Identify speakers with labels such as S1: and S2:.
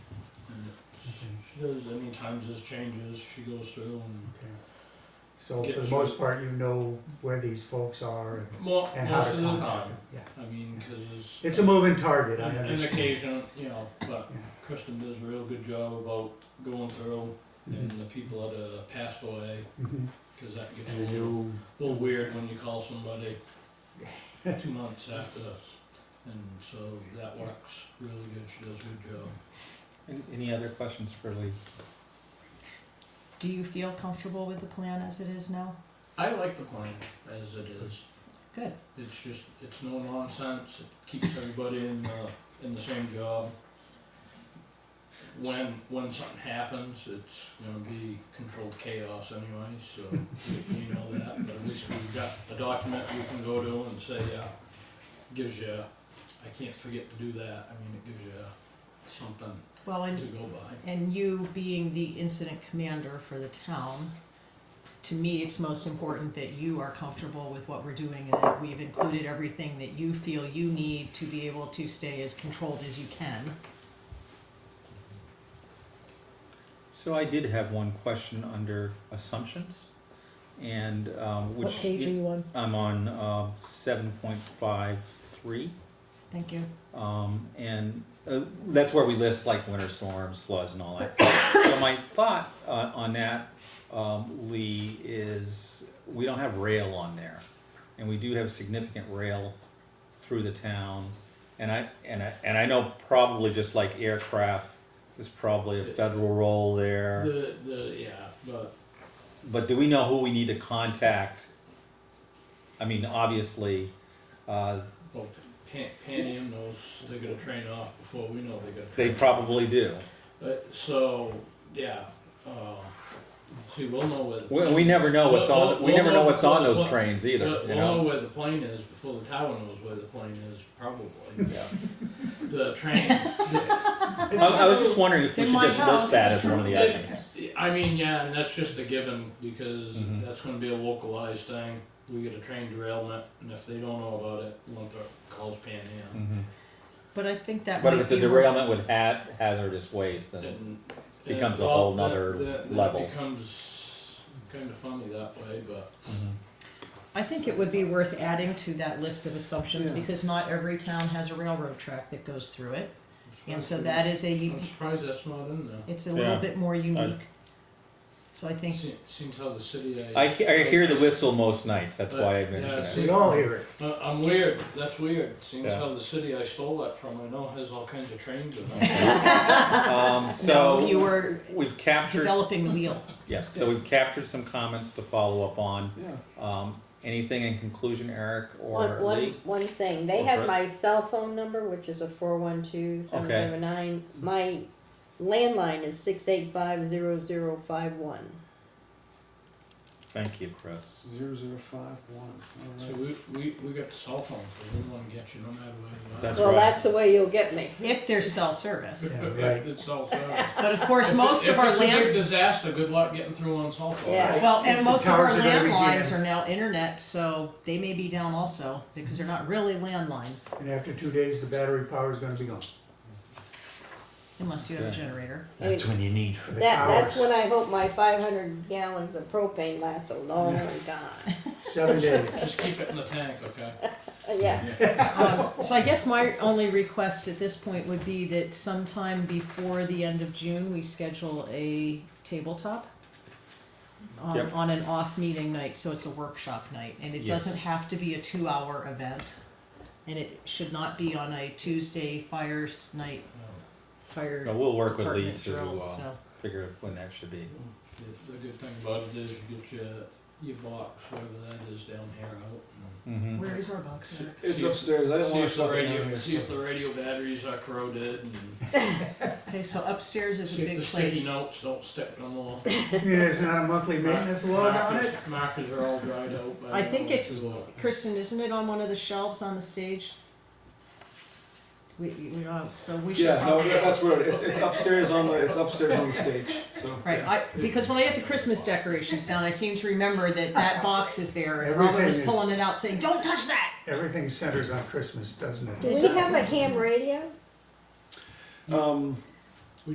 S1: She does any times this changes, she goes through and
S2: Okay. So
S1: Yeah,
S2: for the
S1: sure.
S2: most part, you know where these folks are and-
S1: mo-
S2: and how
S1: most
S2: to
S1: of the
S2: contact
S1: time.
S2: them. Yeah,
S1: I mean, because
S2: it's a moving target, I
S1: an
S2: understand.
S1: occasion, you know, but
S2: Yeah.
S1: Kristen does a real good job about going through and
S2: Mhm.
S1: the people that have passed away,
S3: Mm-hmm.
S2: Mhm.
S1: because that gets a
S2: And the
S1: little,
S2: new,
S1: little weird when you call somebody two months after. And so that works really good. She does a good job.
S4: Any, any other questions for Lee?
S5: Do you feel comfortable with the plan as it is now?
S1: I like the plan as it is.
S5: Good.
S1: It's just, it's no nonsense, it keeps everybody in, uh, in the same job. When, when something happens, it's gonna be controlled chaos anyway, so you know that, but at least we've got a document we can go to and say, yeah, gives you, I can't forget to do that, I mean, it gives you something to
S5: Well, and,
S1: go by.
S5: and you being the incident commander for the town, to me, it's most important that you are comfortable with what we're doing and that we've included everything that you feel you need to be able to stay as controlled as you can.
S4: So I did have one question under assumptions, and um, which
S5: you on?
S4: I'm on uh, seven point five three.
S5: Thank you.
S4: Um, and uh, that's where we list like winter storms, floods, and all that. so my thought uh, on that, um, Lee, is we don't have rail on there, and we do have significant rail through the town. And I and I and I know probably just like aircraft, there's probably a federal role there.
S1: The, the, yeah, but
S4: But do we know who we need to contact? I mean, obviously, uh,
S1: Well, Pan, Panium knows they're gonna train off before we know they're gonna.
S4: they
S1: train off.
S4: probably do.
S1: Uh, so, yeah, uh, see, we'll know where. the
S4: We,
S1: plane
S4: we never
S1: is.
S4: know what's
S1: We'll-
S4: on.
S1: we'll-
S4: We never
S1: we'll
S4: know what's on
S1: we'll-
S4: those trains either.
S1: We'll,
S4: You
S1: we'll know
S4: know.
S1: where the plane is before the tower knows where the plane is, probably.
S4: Yeah.
S1: The train, the-
S4: I, I was just wondering if
S5: It's
S4: we
S5: in
S4: should
S5: my
S4: just
S5: house.
S4: list that as one of the
S1: It-
S4: items.
S1: I mean, yeah, and that's just a given, because
S4: Mhm.
S1: that's gonna be a localized thing. We get a train derailment, and if they don't know about it, Winthrop calls Panium.
S4: Mhm.
S5: But I think that might
S4: But
S5: be.
S4: if it's a
S5: worth-
S4: derailment with ha- hazardous waste, then
S1: And-
S4: Becomes
S1: and,
S4: a whole
S1: well,
S4: nother
S1: that- that- that
S4: level.
S1: Becomes kinda funny that way, but.
S4: Mhm.
S5: I think it would be worth adding to that list of assumptions
S2: Yeah.
S5: because not every town has a railroad track that goes through it. And so that is a, u-
S1: I'm surprised that's not in there.
S5: it's a little
S4: Yeah.
S5: bit more unique. So I think
S1: Se- Seems how the city.
S4: I, he- I hear the whistle most nights. That's why I
S1: Yeah,
S4: mentioned
S1: see-
S4: it.
S2: We all hear it.
S1: Uh, I'm weird, that's weird, seems
S4: Yeah.
S1: how the city I stole that from, I know has all kinds of trains in it.
S4: Um,
S5: no, you
S4: so
S5: were
S4: we've captured
S5: developing the wheel.
S4: yes. So we've captured some comments to follow up on.
S2: Yeah.
S4: Um, anything in conclusion, Eric or
S3: One, one,
S4: Lee?
S3: one thing, they
S4: Or
S3: have
S4: Brett?
S3: my cell phone number, which is a four one two seven seven nine. My landline is six eight five zero zero five one.
S4: Thank you, Chris.
S2: Zero zero five one,
S1: So we, we, we got the cell phone, so we wanna get you no matter what.
S4: That's
S3: Well,
S4: right.
S3: that's the way you'll get me.
S5: If there's cell service.
S2: Yeah, right.
S1: It's all service.
S5: But of course, most
S1: If
S5: of our
S1: it's a big
S5: land,
S1: disaster, good luck getting through on cell phone.
S3: Yeah.
S5: well, and
S2: The
S5: most of our
S2: towers are gonna be
S5: landlines
S2: jammed.
S5: are now internet, so they may be down also because they're not really landlines
S2: And after two days, the battery power is gonna be gone.
S5: unless you have a
S4: Okay.
S5: generator.
S3: I mean,
S6: when you need.
S2: for the
S3: that, that's
S2: towers.
S3: when I hope my five hundred gallons of propane lasts a long time. Uh,
S2: Seven days.
S1: Just keep it in the tank, okay?
S3: Yeah,
S5: Um, so I guess my only request at this point would be that sometime before the end of June, we schedule a tabletop um,
S4: Yep.
S5: on an off meeting night, so it's a workshop night, and it
S4: Yes.
S5: doesn't have to be a two-hour event. And it should not be on a Tuesday fire s- night, fire
S4: No, we'll work with Lee
S5: department
S4: to
S5: drill,
S4: uh,
S5: so.
S4: figure out when that should be.
S1: The, the good thing about it is you get your, your box, whatever that is down here, out.
S4: Mhm.
S5: Where is our box?
S1: and-
S7: It's
S1: See if-
S7: upstairs. I didn't want
S1: See
S7: to
S1: if the
S7: stop it down
S1: radio,
S7: here.
S1: see if the radio batteries are corroded and
S5: Okay, so upstairs is
S1: see
S5: a
S1: if
S5: big
S1: the sticky
S5: place.
S1: notes don't stick no more.
S2: There's not a monthly maintenance load on it?
S1: Markers- Markers are all dried out. by
S5: I
S1: now.
S5: think it's-
S1: So,
S5: Kristen, isn't it on one of the shelves on the stage? We, we don't, so we should.
S7: Yeah, no,
S5: probably-
S7: that- that's where it- it's, it's upstairs on the, it's upstairs on the stage, so.
S5: Right, I, because when I had the Christmas decorations down, I seem to remember that that box is there, and Robert
S2: Everything
S5: was
S2: is-
S5: pulling it out saying, don't touch that!
S2: Everything centers on Christmas, doesn't
S3: do
S2: it?
S3: we have a ham radio?
S7: Um,